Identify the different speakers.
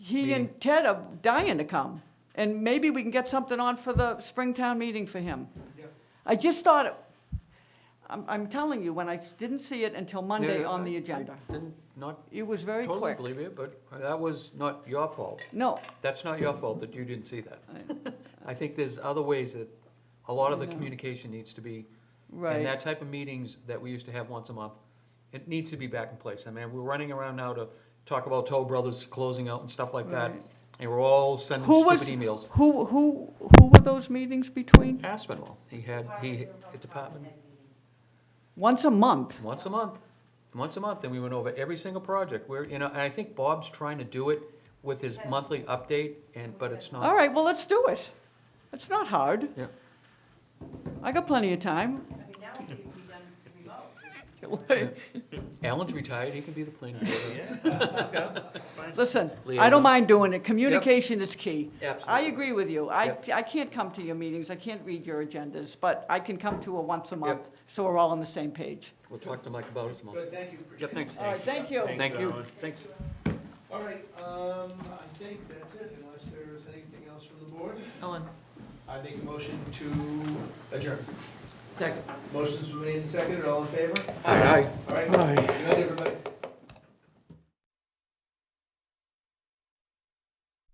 Speaker 1: he and Ted are dying to come, and maybe we can get something on for the Springtown meeting for him. I just thought, it- I'm, I'm telling you, when I s- didn't see it until Monday
Speaker 2: Yeah,
Speaker 1: on
Speaker 2: I-
Speaker 1: the
Speaker 2: I
Speaker 1: agenda.
Speaker 2: Didn't, not
Speaker 1: It was very
Speaker 2: totally
Speaker 1: quick.
Speaker 2: believe it, but that was not your fault.
Speaker 1: No,
Speaker 2: That's not your fault that you didn't see that. I think there's other ways that a lot of the
Speaker 1: I know.
Speaker 2: communication needs to be, and
Speaker 1: right,
Speaker 2: that type of meetings that we used to have once a month, it needs to be back in place. I mean, we're running around now to talk about Toll Brothers closing out and stuff like that,
Speaker 1: Right.
Speaker 2: and we're all sending
Speaker 1: Who was-
Speaker 2: stupid emails.
Speaker 1: who, who, who were those meetings between?
Speaker 2: Aspinwall, he had, he, a department,
Speaker 1: Once a month?
Speaker 2: once a month, once a month, and we went over every single project. We're, you know, and I think Bob's trying to do it with his monthly update, and, but it's not.
Speaker 1: All right, well, let's do it. It's not hard.
Speaker 2: Uh-huh. Yeah.
Speaker 1: I got plenty of time.
Speaker 3: I mean, now it needs to be done remote.
Speaker 2: Alan's retired, he can be the planning board.
Speaker 1: Listen, I
Speaker 2: Liaison.
Speaker 1: don't mind doing it. Communication is key. I
Speaker 2: Absolutely.
Speaker 1: agree with you. I,
Speaker 2: Yep.
Speaker 1: I can't come to your meetings, I can't read your agendas, but I can come to a once a month,
Speaker 2: Yep.
Speaker 1: so we're all on the same page.
Speaker 2: We'll talk to Mike about it tomorrow.
Speaker 4: Good, thank you,
Speaker 2: Yeah,
Speaker 4: appreciate it.
Speaker 2: thanks.
Speaker 1: All right, thank you.
Speaker 2: Thank you. Thanks.
Speaker 4: All right, um, I think that's it, unless there's anything else from the board.
Speaker 2: Ellen,
Speaker 4: I make a motion to adjourn.
Speaker 2: second.
Speaker 4: Motion's been made and seconded, all in favor?
Speaker 2: Aye.
Speaker 4: All right, good night, everybody.